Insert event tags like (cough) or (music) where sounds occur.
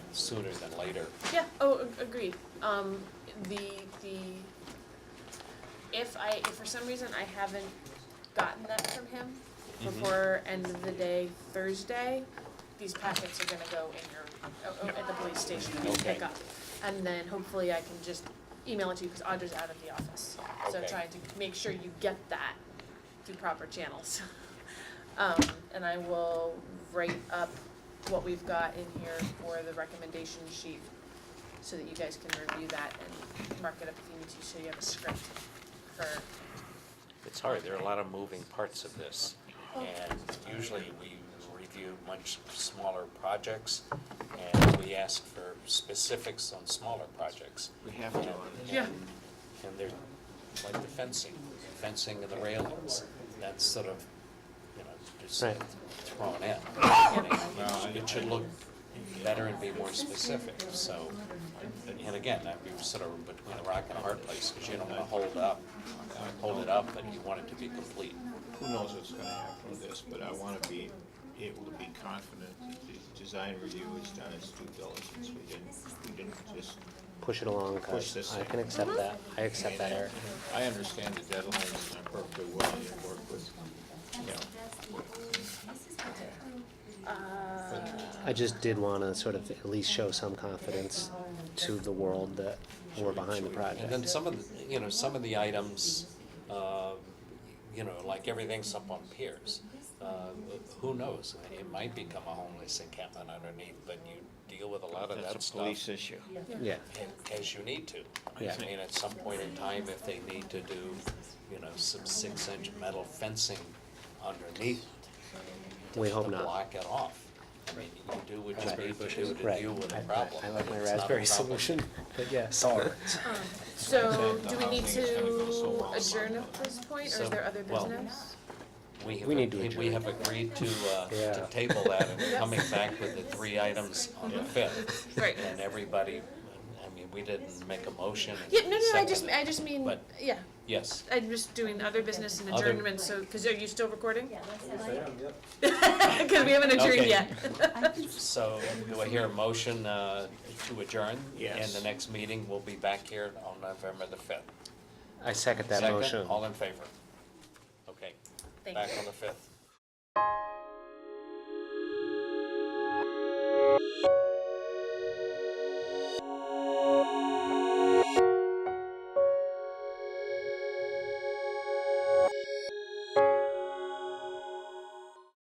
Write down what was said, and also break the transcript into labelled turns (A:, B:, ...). A: sooner than later.
B: Yeah, oh, ag- agreed. Um, the, the, if I, if for some reason I haven't gotten that from him
A: Mhm.
B: before end of the day Thursday, these packets are gonna go in your, o- o- at the police station and you
A: Okay.
B: pick up. And then hopefully I can just email it to you, cause Audra's out of the office. So
A: Okay.
B: trying to make sure you get that through proper channels. (laughs) Um, and I will write up what we've got in here for the recommendation sheet so that you guys can review that and mark it up if you need to, so you have a script for,
A: It's hard, there are a lot of moving parts of this. And usually we review much smaller projects and we ask for specifics on smaller projects.
C: We have to on this.
B: Yeah.
A: And they're like the fencing, fencing and the railings, that's sort of, you know, just
D: Right.
A: thrown in. And it- It should look better and be more specific, so. And again, that we were sort of between a rock and a hard place, because you don't want to hold up, hold it up, but you want it to be complete.
C: Who knows what's gonna happen with this, but I wanna be able to be confident that the design review has done its due diligence. We didn't, we didn't just,
D: push it along,
C: Push
D: cause
C: this
D: I
C: thing.
D: can accept that, I accept that, Eric.
C: I understand the deadlines, and I'm perfectly willing to work with, you know,
B: Uh, um,
D: I just did wanna sort of at least show some confidence to the world that we're behind the
A: And
D: project.
A: then some of, the you know, some of the items, uh, you know, like everything's up on piers. Uh, Who knows? It might become a homeless encampment underneath, but you deal with a lot of that
C: that's a
A: stuff
C: police issue.
D: Yeah,
A: a- as you need to.
D: Yeah.
A: I mean, at some point in time, if they need to do, you know, some six-inch metal fencing underneath
D: we
A: to
D: hope not.
A: block it off. I mean, you do what you need to do to
D: Right,
A: deal with
D: I,
A: a
D: I-
A: problem.
D: I like my
A: It's not a
D: raspberry
A: problem.
D: solution, but yeah, sorry.
B: so
C: Exactly.
B: do we need
C: I think it's gonna go so
B: to
C: long.
B: adjourn at this point, or
A: So,
B: is there other
A: well,
B: business?
A: We have,
D: We need to
A: agreed- we
D: adjourn.
A: have agreed to, uh,
D: Yeah.
A: to table that and coming back with the three items on the fifth.
B: Uh-huh. Right.
A: And everybody, I mean, we didn't make a motion. and
B: Yeah, no, no, I
A: second
B: just,
A: it.
B: I just mean,
A: But-
B: yeah,
A: Yes,
B: I'm just doing other business and
A: Other-
B: adjournment, so, cause are you still recording?
E: Yeah.
B: (laughs) Cause we haven't adjourned
A: Okay.
B: yet.
A: so do I hear a motion, uh, to adjourn?
C: Yes.
A: And the next meeting will be back here on November the fifth.
D: I second that motion.
A: All in favor? Okay,
B: Thank you.
A: back on the fifth.